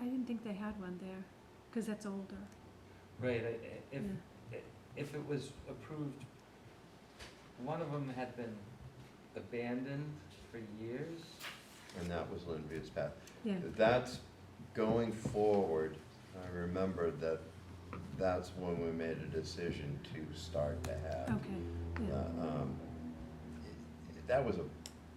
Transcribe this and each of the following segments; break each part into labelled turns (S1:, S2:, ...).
S1: I didn't think they had one there, because that's older.
S2: Right, I- I- if,
S1: Yeah.
S2: if it was approved, one of them had been abandoned for years.
S3: and that was Lynn View's path.
S1: Yeah,
S3: That's going forward, I remember that that's when we made a decision to start to have.
S1: okay, yeah,
S3: uh, um, it- That was a,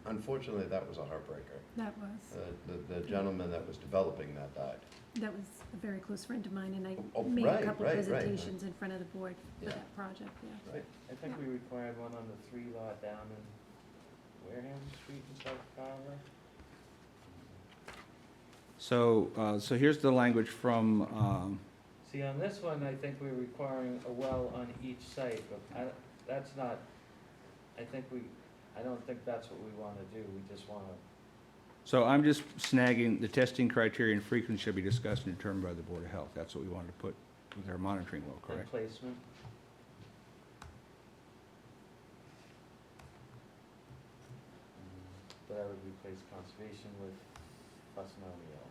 S3: unfortunately, that was a heartbreaker.
S1: that was,
S3: The- The, the gentleman that was developing that died.
S1: that was a very close friend of mine, and I
S3: Oh,
S1: made a
S3: right,
S1: couple
S3: right, right, right.
S1: presentations in front of the board for
S3: Yeah.
S1: that project, yeah.
S3: Right.
S2: I think we required one on the three lot down in Wareham Street in South Carolina.
S4: So, uh, so here's the language from, um,
S2: See, on this one, I think we're requiring a well on each site, but I, that's not, I think we, I don't think that's what we wanna do, we just wanna,
S4: so I'm just snagging, the testing criteria and frequency should be discussed and determined by the Board of Health. That's what we wanted to put with our monitoring well,
S2: and
S4: correct?
S2: placement. But I would replace conservation with Fusnellial.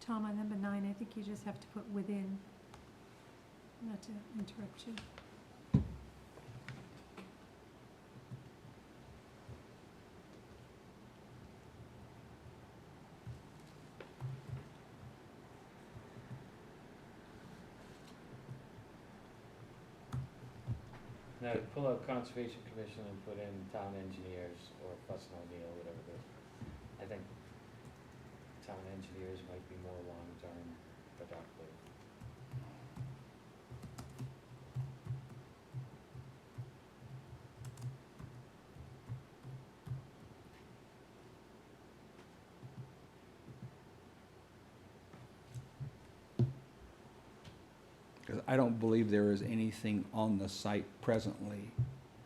S1: Tom, on number nine, I think you just have to put within, not to interrupt you.
S2: Now, pull out Conservation Commission and put in town engineers or Fusnellial, whatever the, I think town engineers might be more long-term productive.
S4: Because I don't believe there is anything on the site presently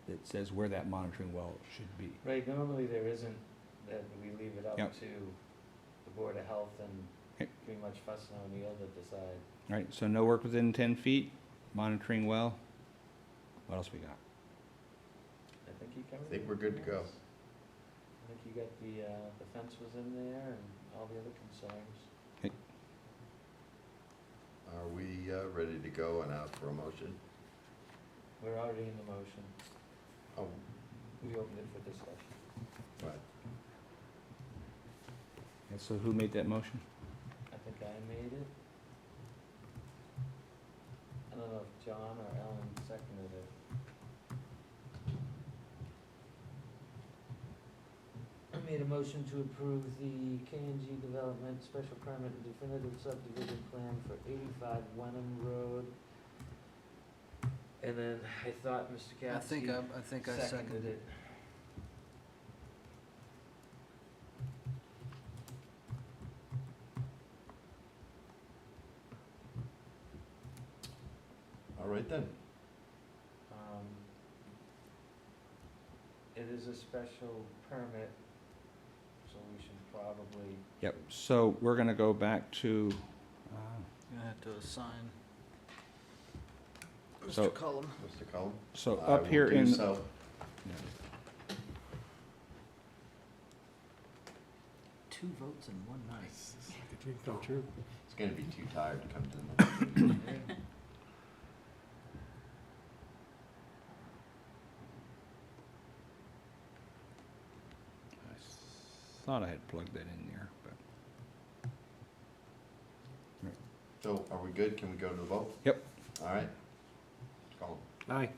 S4: that says where that monitoring well should be.
S2: Right, normally there isn't, that we leave it up
S4: Yep.
S2: to the Board of Health and
S4: Okay.
S2: pretty much Fuss and O'Neill to decide.
S4: All Right, so no work within ten feet, monitoring well. What else we got?
S2: I think you covered.
S3: I think we're good to go.
S2: everything else. I think you got the, uh, the fence was in there and all the other concerns.
S3: Are we uh, ready to go and out for a motion?
S2: We're already in the motion.
S3: Oh,
S2: We opened it for discussion.
S3: right.
S4: And so who made that motion?
S2: I think I made it. I don't know if John or Ellen seconded it. I made a motion to approve the K and G Development Special Permit and Definitive Subdivision Plan for eighty-five Wenham Road. And then I thought Mr. Gasky.
S5: I think I, I think I seconded it.
S3: All right then.
S2: Um, It is a special permit, so we should probably
S4: Yep, so we're gonna go back to, uh,
S5: You have to assign.
S4: So-
S5: Mr. Cullum.
S3: Mr. Cullen?
S4: so
S3: I
S4: up
S3: will
S4: here
S3: do
S4: in,
S3: so.
S5: Two votes in one night.
S3: It's gonna be too tired to come to the meeting.
S4: I thought I had plugged that in there, but.
S3: So are we good? Can we go to the vote?
S4: Yep.
S3: All right. Call.
S4: Aye.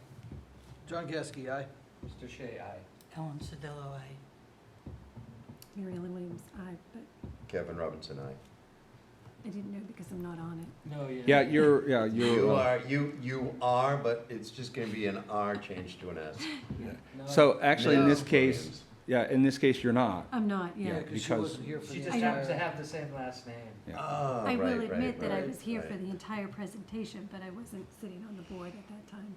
S5: John Gasky, aye.
S2: Mr. Shea, aye.
S5: Ellen Sedillo, aye.
S1: Mary Ellen Williams, aye, but
S3: Kevin Robinson, aye.
S1: I didn't know because I'm not on it.
S2: No, yeah.
S4: Yeah, you're, yeah,
S3: You
S4: you're. uh,
S3: are, you, you are, but it's just gonna be an R changed to an S.
S2: No,
S4: So actually, in this
S3: No.
S4: case, yeah, in this case, you're not.
S1: I'm not, yeah.
S5: Yeah,
S4: because-
S5: because she wasn't here for
S2: She
S5: the
S2: just
S1: I don't-
S2: happens to
S5: entire.
S2: have the same last name.
S4: Yeah.
S3: Ah,
S1: I
S3: right,
S1: will
S3: right,
S1: admit that I
S3: right,
S1: was here for
S3: right.
S1: the entire presentation, but I wasn't sitting on the board at that time.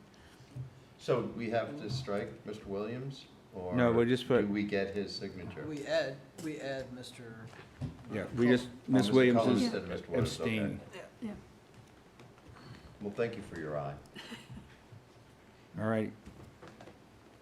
S3: So we have to strike Mr. Williams, or?
S4: No, we just
S3: Do
S4: put-
S3: we get his signature?
S5: We add, we add Mr.
S4: Yeah, we just,
S3: Oh,
S4: Ms.
S3: Mr.
S4: Williams
S3: Cullen
S4: is
S3: instead of Mr. Williams, okay.
S4: abstaining.
S1: Yeah,
S3: Well, thank you for your eye.
S4: All right,